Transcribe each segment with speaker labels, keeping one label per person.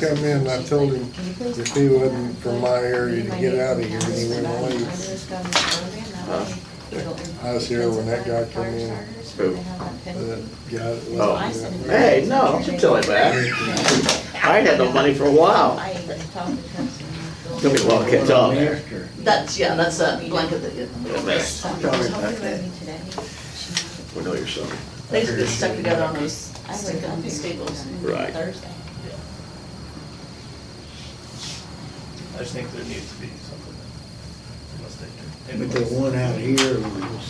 Speaker 1: come in, I told him if he wasn't from my area to get out of here, and he went away.
Speaker 2: I
Speaker 1: I was here when that guy come in.
Speaker 3: Who?
Speaker 1: That guy that
Speaker 3: Oh.
Speaker 1: left me that
Speaker 3: Hey, no, don't you tell him that. I ain't had no money for a while. There'll be a lot of kids out there.
Speaker 4: That's, yeah, that's that blanket that you,
Speaker 3: Yeah, that's- We know your son.
Speaker 4: they used to get stuck together on those, stick on these staples.
Speaker 3: Right.
Speaker 5: I just think there needs to be something. Unless they do.
Speaker 6: But the one out here,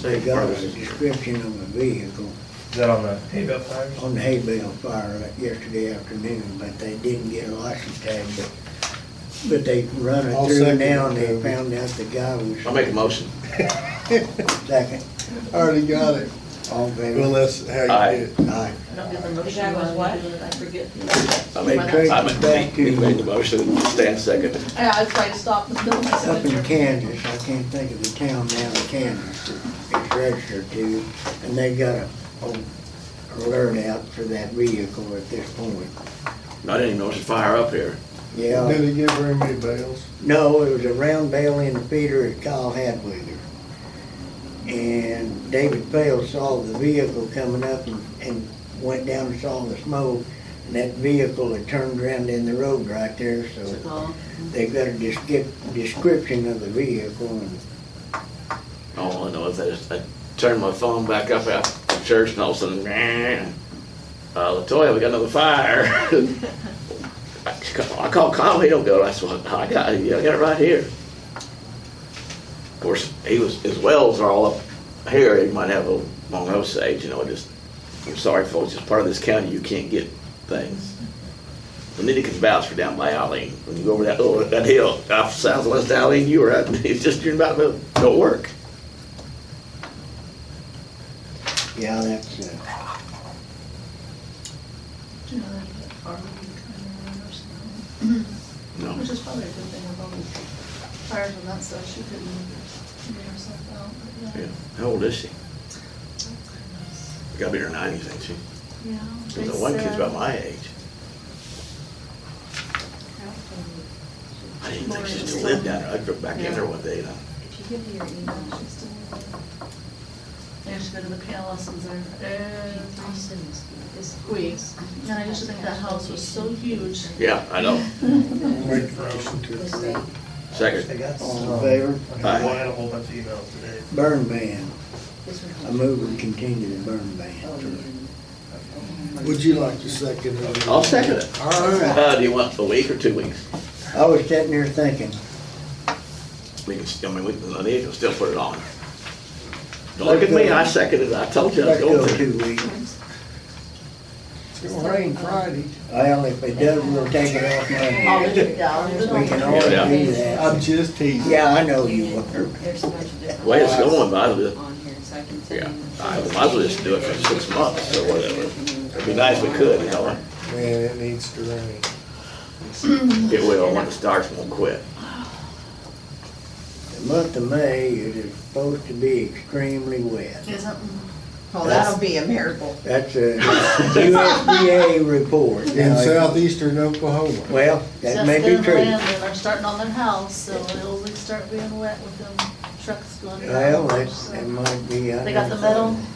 Speaker 6: they got a description of a vehicle
Speaker 5: Is that on the hay bale tires?
Speaker 6: on the hay bale fire like yesterday afternoon, but they didn't get a license tag, but, but they run it
Speaker 1: I'll
Speaker 6: through
Speaker 1: second
Speaker 6: now and
Speaker 1: it,
Speaker 6: they
Speaker 1: Toby.
Speaker 6: found out the guy was.
Speaker 3: I'll make a motion.
Speaker 6: Second,
Speaker 1: I Already got it.
Speaker 6: all in
Speaker 1: Well, that's
Speaker 6: favor.
Speaker 1: how you do it.
Speaker 6: Aye.
Speaker 4: I don't get the
Speaker 2: The
Speaker 4: motion.
Speaker 2: guy was what?
Speaker 4: I forget.
Speaker 3: I
Speaker 6: They
Speaker 3: made,
Speaker 6: traced
Speaker 3: I
Speaker 6: it back
Speaker 3: made, he made the
Speaker 6: to,
Speaker 3: motion, Stan seconded.
Speaker 4: I, I tried to stop and film
Speaker 6: up in
Speaker 4: myself.
Speaker 6: Kansas, I can't think of the town now in Kansas, that it's registered to, and they got a, a alert out for that vehicle at this point.
Speaker 3: I didn't even know it was fire up here.
Speaker 6: Yeah.
Speaker 1: Did he give her any bales?
Speaker 6: No, it was a round bale in the feeder that Kyle had with her. And David Pale saw the vehicle coming up and, and went down and saw the smoke. And that vehicle had turned around in the road right there, so
Speaker 4: Oh,
Speaker 6: they got a descrip- description of the vehicle and
Speaker 3: All I know is I just, I turned my phone back up out the church and all of a sudden, "Nah." uh, Latoya, we got another fire. I ca- I called Kyle, he don't go, I said, "Well, I got, it. yeah, I got it right here. Of course, he was, his wells are all up here, he might have a long Osage, you know, just, I'm sorry folks, it's part of this county, you can't get things. And then he can vouch for down by Allen, when you go over that, oh, that hill, off southwest Allen, you were at, it's just, you're about to go to work.
Speaker 6: yeah, that's, uh,
Speaker 4: do you know that farm kind of, or something?
Speaker 3: No.
Speaker 4: Which is probably a good thing with all the fires and that stuff, she couldn't get herself out, but
Speaker 3: Yeah.
Speaker 4: yeah.
Speaker 3: How old is she? Gotta be in her nineties, ain't she?
Speaker 4: Yeah.
Speaker 3: There's that one kid's about my age. I didn't think she still lived down there. I drove back in there one day and I,
Speaker 2: If you give me your email, she's still there.
Speaker 4: I used to go to the piano lessons there
Speaker 2: I'll
Speaker 4: every
Speaker 2: send this to you. This-
Speaker 4: week. And I used to think that house was so huge.
Speaker 3: yeah, I know.
Speaker 1: Make a motion to
Speaker 2: This
Speaker 1: approve.
Speaker 2: week.
Speaker 3: Second,
Speaker 5: got
Speaker 6: all in favor?
Speaker 5: Okay,
Speaker 3: Aye.
Speaker 5: well, I had a whole bunch of emails today.
Speaker 6: Burn ban.
Speaker 2: This week.
Speaker 6: I move we continue the burn ban.
Speaker 1: Would you like to second it?
Speaker 3: I'll second it.
Speaker 1: All right.
Speaker 3: Uh, do you want a week or two weeks?
Speaker 6: I was sitting there thinking,
Speaker 3: We can, still- I mean, we can, I need to still put it on. Don't look at me, I seconded it. I told you I was
Speaker 6: let's go
Speaker 3: going to.
Speaker 6: two weeks.
Speaker 1: It's gonna rain Friday.
Speaker 6: Well, if it does, we'll take it off Monday.
Speaker 4: All the, yeah.
Speaker 6: We can always
Speaker 3: Yeah.
Speaker 6: do that.
Speaker 1: I'm just teasing.
Speaker 6: Yeah, I know you were.
Speaker 2: There's a bunch of different.
Speaker 3: Way it's going, but I
Speaker 2: files
Speaker 3: was,
Speaker 2: On here, so I can send
Speaker 3: yeah,
Speaker 2: you.
Speaker 3: I might as well just do it for six months or whatever. It'd be nice if we could, you know?
Speaker 1: Man, it needs to rain.
Speaker 3: It will, when it starts, it won't quit.
Speaker 6: The month of May, it is supposed to be extremely wet.
Speaker 4: Isn't,
Speaker 7: Well, that'll be a miracle.
Speaker 6: That's a USDA report.
Speaker 1: In
Speaker 6: Now,
Speaker 1: southeastern Oklahoma.
Speaker 6: Well, that
Speaker 4: that's
Speaker 6: may
Speaker 4: been
Speaker 6: be
Speaker 4: the
Speaker 6: true.
Speaker 4: land, and they're starting on their house, so it'll start being wet with them trucks going.
Speaker 6: Well,
Speaker 4: down,
Speaker 6: that,
Speaker 4: so.
Speaker 6: that might be. uh, I
Speaker 4: They got the
Speaker 6: never
Speaker 4: metal
Speaker 6: thought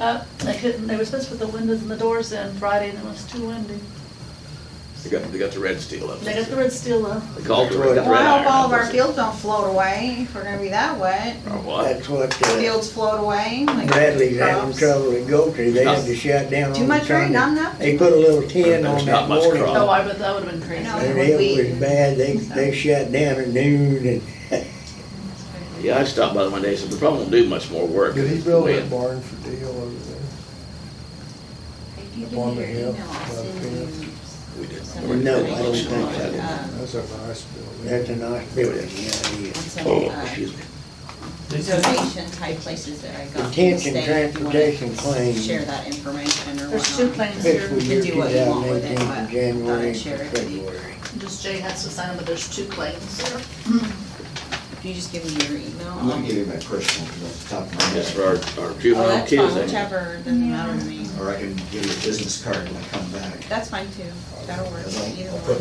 Speaker 4: up, they couldn't, they were supposed to put the windows and the doors in Friday, and it was too windy.
Speaker 3: They got, they got the red steel up.
Speaker 4: They got the red steel up.
Speaker 3: They called it, they got the
Speaker 7: Well,
Speaker 3: red
Speaker 7: I
Speaker 3: iron.
Speaker 7: hope all of our fields don't float away, if we're gonna be that wet.
Speaker 3: Or
Speaker 6: of it.
Speaker 3: what?
Speaker 6: That's what uh,
Speaker 7: Fields float away. like
Speaker 6: Bradley's having
Speaker 7: crops.
Speaker 6: trouble with Gulfstream. They had to shut down on the.
Speaker 7: Too much
Speaker 6: Sunday.
Speaker 7: rain, not enough?
Speaker 6: They put a little tin on
Speaker 3: There's not
Speaker 6: that
Speaker 3: much
Speaker 6: morning.
Speaker 3: crop.
Speaker 4: Oh, I bet that would've been crazy.
Speaker 7: No.
Speaker 6: And it was bad. They, they shut down at noon and
Speaker 3: Yeah, I stopped by the one day, said, we probably won't do much more work.
Speaker 1: Did he build
Speaker 3: Wait,
Speaker 1: that barn for Dale over there?
Speaker 2: If you give
Speaker 1: On
Speaker 2: me
Speaker 1: the
Speaker 2: your
Speaker 1: hill,
Speaker 2: email, I'll
Speaker 1: by the
Speaker 2: send you.
Speaker 3: We did.
Speaker 6: No, I don't think so.
Speaker 2: uh,
Speaker 1: That's a nice building.
Speaker 6: That's a nice building, yeah, it is.
Speaker 2: on some,
Speaker 3: Oh,
Speaker 2: uh,
Speaker 3: excuse me.
Speaker 2: donation type places that I got. from the
Speaker 6: Detention
Speaker 2: state, if you wanna
Speaker 6: transportation claim.
Speaker 2: Share that information or
Speaker 4: There's two
Speaker 2: whatnot.
Speaker 4: planes here.
Speaker 6: Fiscal
Speaker 2: You
Speaker 6: year
Speaker 2: can
Speaker 6: two
Speaker 2: do what you want
Speaker 6: thousand
Speaker 2: with it,
Speaker 6: eighteen
Speaker 2: but I
Speaker 6: from
Speaker 2: thought
Speaker 6: January
Speaker 2: I'd share
Speaker 6: to
Speaker 2: it with you.
Speaker 6: February.
Speaker 4: Just Jay has to sign them, but there's two claims there.
Speaker 2: If you just give me your email.
Speaker 8: I'm gonna
Speaker 2: I'll-
Speaker 8: give you my personal, because that's the top of my
Speaker 3: That's
Speaker 8: head,
Speaker 3: for our, our
Speaker 2: Oh,
Speaker 3: juvenile
Speaker 2: that's fine,
Speaker 3: kids, ain't
Speaker 2: whichever, doesn't matter to me.
Speaker 8: or I can give you a business card when I come back.
Speaker 2: That's fine too. That'll work.
Speaker 8: Because I'll-
Speaker 2: Either
Speaker 8: I'll
Speaker 2: one.
Speaker 8: put